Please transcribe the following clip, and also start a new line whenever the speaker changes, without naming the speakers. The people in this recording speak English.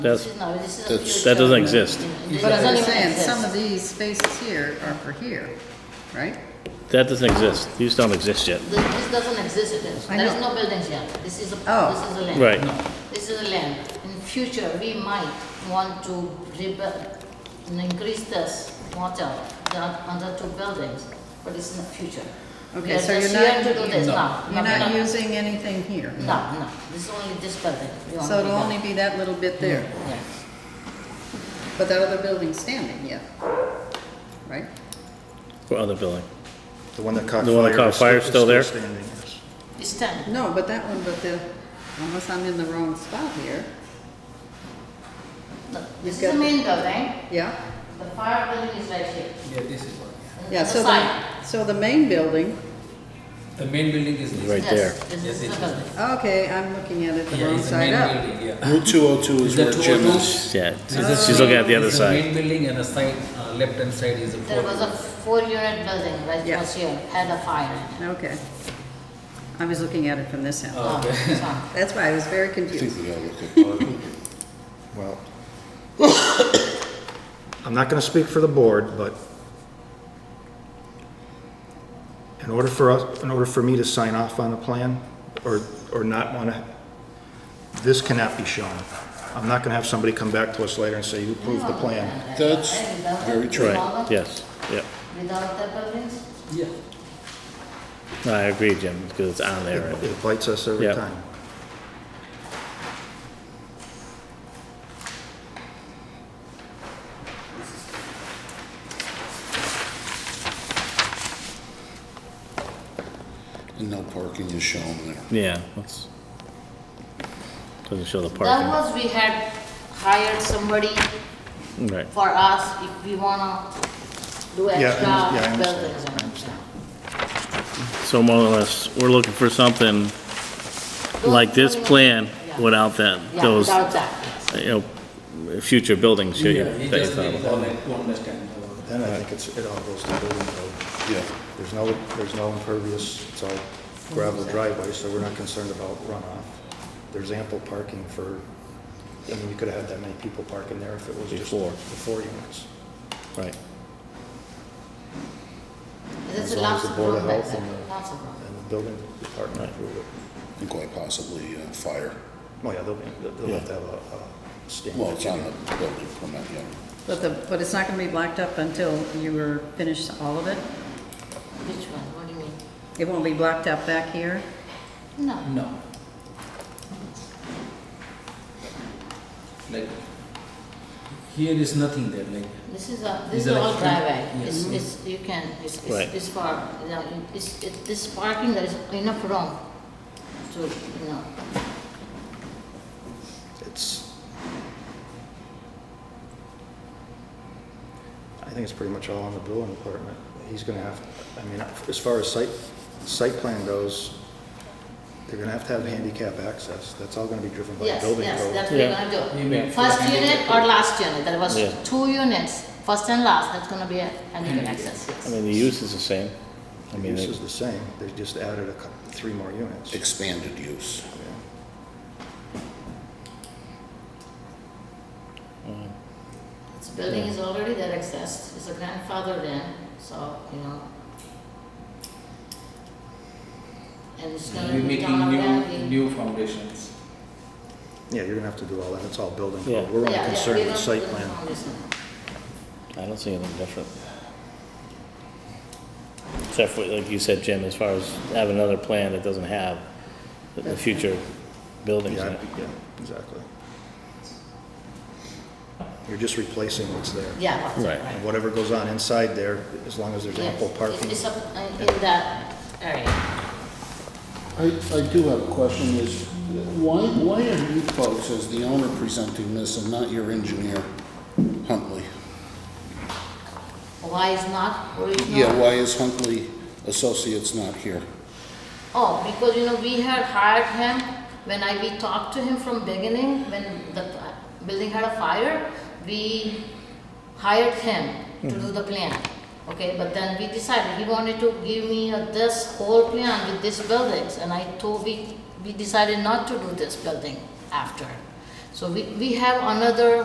That's,
No, this is a
That's-
future.
that doesn't exist.
It
But as
doesn't
I'm
even
saying, some of
exist.
these spaces here are for here, right?
that doesn't exist. These don't exist yet.
Th- This doesn't exist, it is.
I
there is
know.
no buildings yet, this is, a
Oh.
this is a land.
Right.
This is a land. In future, we might want to rebuild and increase this water down under two buildings, but it's in the future.
Okay, so
We are
you're
just
not,
here to do this, no.
you're
no,
not
no.
using anything here.
No, no, this is only this building. we want
So
to
it'll
rebuild.
only be that little bit there,
Yeah.
but that other building's standing yet, right?
What other building?
The one that caught fire.
The one that caught
is
fire is still there?
standing, yes.
It's ten,
No, but that one, but the, unless I'm in the wrong spot here,
No, this is
got
the
the-
main building,
yeah?
the fire building is right here.
Yeah, this is one. yeah.
Yeah,
The
so
side.
the, so the main building,
The main building is this.
Right. there.
Yes, this is
Yes,
the
it is.
building.
okay, I'm looking at it the
Yeah,
wrong
it's the
side
main
up.
building, yeah.
Route 202 is
The
where Jim
202
is.
Yeah,
This is
she's looking at the other
this is
side.
main building and the side, uh, left hand side is a
There
four.
was a four-unit building right
Yeah.
was here, had a fire in it.
Okay. I was looking at it from this end.
Oh, okay.
Oh, so-
That's why I was very
I think
confused.
we gotta look at, well.
I'm not going to speak for the board, but in order for us, in order for me to sign off on the plan or, or not want to, this cannot be shown. I'm not going to have somebody come back to us later and say, you approved the plan.
That's very true.
Right, yes, yeah.
Without the buildings?
Yeah.
No, I agree, Jim, because it's on there
It
already.
it bites us every
Yeah.
time.
And no parking is shown there.
Yeah, that's, doesn't show the
That
parking.
was, we had hired somebody
Right,
for us if we wanna do
I under- yeah, I
extra
understand.
buildings. and-
I understand.
so more or less, we're looking for something
Those
like this
buildings-
plan
yeah.
without that,
Yeah,
those,
without that, yes.
you know, future buildings that you
Yeah, it
that you
just
thought
needs
about.
all that to understand. about
Then I think it's, it all goes to building code.
Yeah.
There's no, there's no impervious, it's all gravel driveway, so we're not concerned about runoff. There's ample parking for, I mean, you could have had that many people parking there if it was just
Before.
the four units.
Right,
There's
As long as
lots
the
of
Board
room
of
back
Health
there,
and the-
lots of room.
And the building department approved it.
And quite possibly uh, fire.
Oh, yeah, they'll, be- they'll- they'll have to have a a stand.
Well, it's on the building permit, yeah.
But the, but it's not gonna be blacked up until you were finished all of it?
Which one, what do you mean?
It won't be blacked up back here?
No.
No. Like, here is nothing there, like,
This is a, this
These
is
are
all
like-
driveway,
Yes.
it's, it's, you can, it's,
Right.
it's, it's for, you know, it's, it, this parking, there is enough room to, you know,
It's, I think it's pretty much all on the building department. He's gonna have, I mean, as far as site, site plan goes, they're gonna have to have handicap access. That's all gonna be driven by
yes,
building
yes, that's
code.
what we're
Yeah.
We
gonna
may-
do. First unit or last unit, there was
Yeah.
two units, first and last, that's gonna be a handicap access,
I
yes.
mean, the use is the same. I
The
mean,
use
it-
is the same, they just added a, cou- three more units.
Expanded use.
Yeah.
This building is already there access, it's a grandfather in, so, you know. And it's gonna
we're
be
making
down
new, new foundations.
Yeah, you're gonna have to do all that, it's all building
Yeah.
code. We're only concerned with the site plan.
I don't see anything different. Except for, like you said, Jim, as far as having another plan that doesn't have the- the future buildings in
Yeah,
it.
yeah, exactly. You're just replacing what's there.
Yeah, that's it,
Right.
right.
And whatever goes on inside there, as long as there's
Yes,
ample parking.
It's up uh, in that area.
I, I do have a question is, why, why are you folks as the owner presenting this and not your engineer, Huntley?
Why is not, or is
Yeah,
not?
why is Huntley Associates not here?
Oh, because, you know, we had hired him, when I, we talked to him from beginning, when the uh, building had a fire, we hired him to
Mm-hmm.
do the plan. Okay, but then we decided, he wanted to give me a- this whole plan with these buildings, and I told, we, we decided not to do this building after. So we, we have another